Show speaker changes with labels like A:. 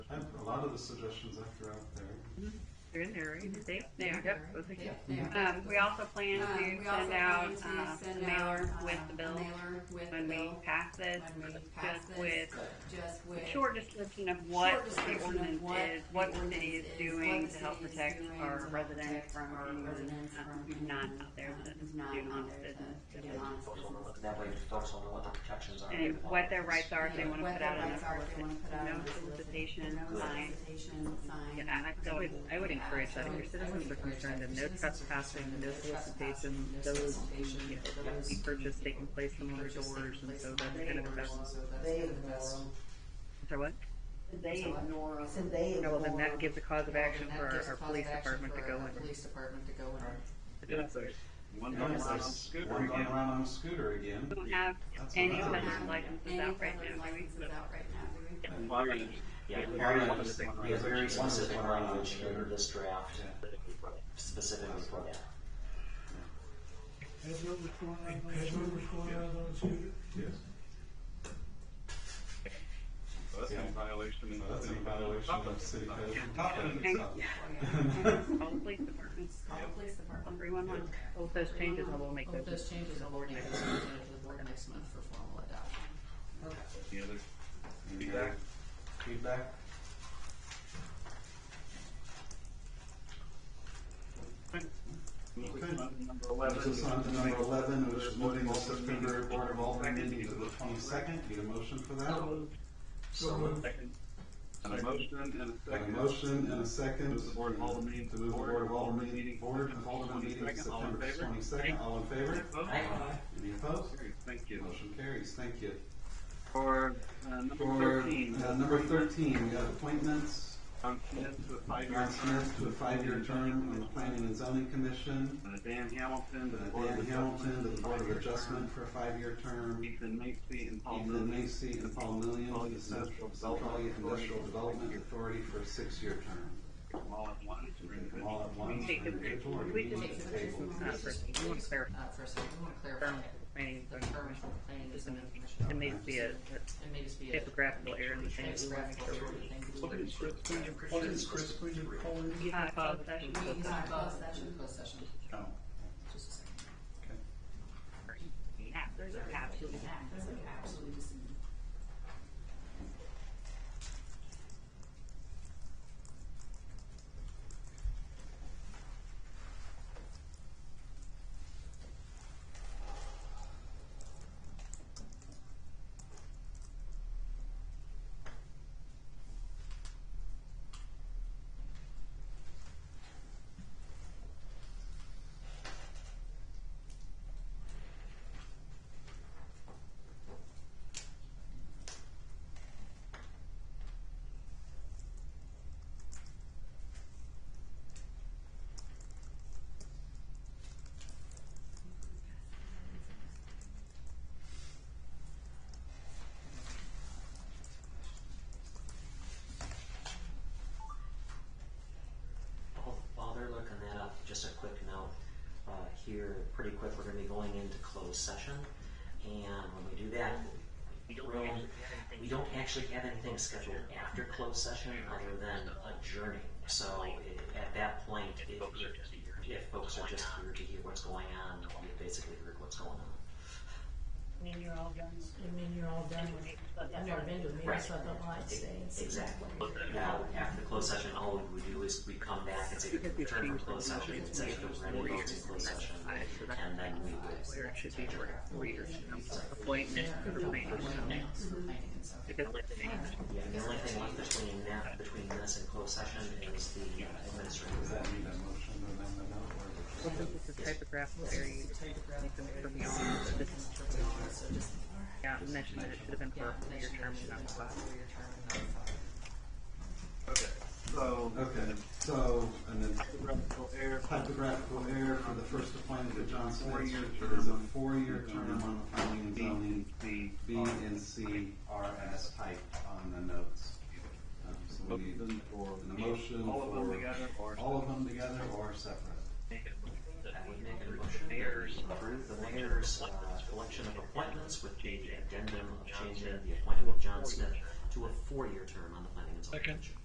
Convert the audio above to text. A: lot of the suggestions that you're out there.
B: They're in there, right? See?
C: They're
B: There, yep, those are
C: Yep,
B: good.
C: they are.
B: Um, we also plan
C: Um, we
B: to
C: also
B: send
C: plan
B: out,
C: to
B: uh,
C: send
B: a mailer
C: out,
B: with
C: uh,
B: the
C: a
B: bill
C: mailer with
B: when
C: the
B: we
C: bill
B: pass this,
C: when we pass
B: just
C: this,
B: with
C: just with
B: short description of what
C: short
B: the
C: description of
B: ordinance
C: what
B: is,
C: the
B: what the
C: ordinance
B: city is
C: is,
B: doing
C: what the
B: to help
C: city is
B: protect
C: doing to
B: our
C: help
B: residents
C: protect
B: from
C: our
B: anyone
C: residents
B: uh,
C: from
B: who's not
C: anyone,
B: out there
C: uh,
B: to
C: who's not
B: do
C: out
B: honest
C: there to
B: business.
C: do
D: Yeah,
C: honest
D: focus on
C: business.
D: what- That way you focus on what the protections are.
B: And what their rights are if they
C: Yeah,
B: wanna
C: what
B: put
C: their
B: out a
C: rights are if they wanna put out a
B: no
C: notice.
B: solicitation
C: No
B: sign.
C: solicitation sign.
B: Yeah, I- I would, I would encourage that. If your citizens are concerned and no trespassing, no solicitation, those, you know, can be purchased, they can place them on their doors and so that's kind of the best.
C: So that's
E: They
C: kind of the
E: ignore
C: best.
E: 'em.
B: So what? They ignore
E: So they
B: No,
E: ignore
B: well, then that
E: 'em.
B: gives a cause of
C: Well,
B: action
C: then that
B: for our,
C: gives
B: our
C: cause
B: police
C: of action
B: department to
C: for
B: go
C: our
B: in.
C: Police department to go in.
A: One
F: gone
A: going
F: around on
A: around
F: scooter
A: one going
F: again.
A: around on a scooter again.
B: We don't have
A: That's
B: any
A: another
B: felon
A: reason.
B: licenses
C: Any
B: out right
C: felon
B: now.
C: licenses out right now, do we?
D: Yeah,
A: Very
D: very,
A: specific.
D: we have
A: Very
D: very specific
A: specific
D: language
A: language.
D: in this draft
A: Yeah.
D: specifically for that.
G: Has what was going around on the street, what's going around on the street.
A: Yes.
F: Well, That's
A: Yeah.
F: in violation
A: So
F: of.
A: that's an violation of city code. Topping,
B: Thank-
A: so-
B: All the police departments,
C: Call the police department.
B: everyone wants, all those changes, I will make
C: All
B: those.
C: of Oh, those changes will be made to the board next month for formal adoption.
F: The other,
A: Any
F: Feedback.
A: Feedback?
F: number
A: This is
F: eleven,
A: on to number eleven, which is moving the September Board of Aldermen meeting to the twenty-second. Need a motion for that?
G: So moved.
F: and a motion and a
A: Got a
F: second.
A: motion and a second.
F: Move the Board of Aldermen
A: To move the Board of Aldermen meeting,
F: meeting
A: Board
F: to
A: of Aldermen meeting to
F: 22nd. All in
A: September
F: favor?
A: twenty-second. All in favor?
F: Vote.
A: Any opposed?
F: Carries. Thank you.
A: Motion carries. Thank you.
F: For, uh, number
A: For
F: thirteen,
A: uh, number thirteen, we have appointments.
F: Tom Smith to a five-year
A: John Smith to a
F: term.
A: five-year term on the Planning and Zoning Commission.
F: Uh, Dan Hamilton to the Board of
A: Dan Hamilton to
F: Adjustment.
A: the Board of
F: five-year
A: Adjustment
F: term.
A: for a five-year term.
F: Ethan Macy and Paul
A: Ethan
F: Lilly.
A: Macy and Paul Millian to the Central Centralia Industrial Development Authority for a six-year term.
F: All at once. or
A: Take them all at once.
B: Take them.
A: individually, or
B: We
A: each
B: just-
A: at the table.
B: Uh, first, we want to clarify.
C: Uh, first, we want to clarify
B: Term, planning,
C: the
B: zoning
C: term
B: commission.
C: for planning is
B: Just a minute.
C: commission.
B: It may be a
C: It may just be
B: a
C: a.
B: typographical error in the thing. We want to make
C: typographical
B: sure
C: error in the thing.
F: What is Chris?
G: What is Chris, we just call him?
B: we have closed session.
C: We can have closed session, closed session.
A: Oh,
C: Just a second.
A: okay.
B: Yeah, There's a cap.
C: Absolutely, that's like absolutely just.
D: While- While they're looking that up, just a quick note, uh, here, pretty quick, we're gonna be going into closed session. And when we do that, we don't, we don't actually have anything scheduled after closed session other than adjourning. So i- at that point, if, if- if folks are just here to hear what's going on, we basically heard what's going on.
B: Mean you're all done.
H: You mean you're all done with, I've never been to a meeting, so I don't like saying.
D: Exactly. Now, after the closed session, all we do is we come back and say, return from closed session, and say, we're ready to go to closed session. And then we would
B: Where it should be for four years. Appointment for planning.
H: Mm-hmm.
B: Because it's changed.
D: Yeah, the only thing left between that, between this and closed session is the uh, administrative.
A: Does that need a motion or amendment or?
B: Well, This is a typographical error. You can put me on. This is- Yeah, mention that it should have been for a four-year term, not a five.
C: For your term and not five.
F: Okay, so.
A: Okay, so, and then
F: Typographical error.
A: typographical error for the first appointment of John Smith,
F: Four-year
A: It is a
F: term.
A: four-year term on the Planning and
F: B and
A: Zoning.
F: C.
A: B and C are as typed on the notes. Um, So we
F: Both of
A: need
F: them or-
A: an emotion
F: All of them
A: for-
F: together or?
A: all of them together or separate.
D: I would make a motion to approve the mayor's uh, election of appointments with the addendum of changing the appointment of John Smith to a four-year term on the planning and zoning. Commission.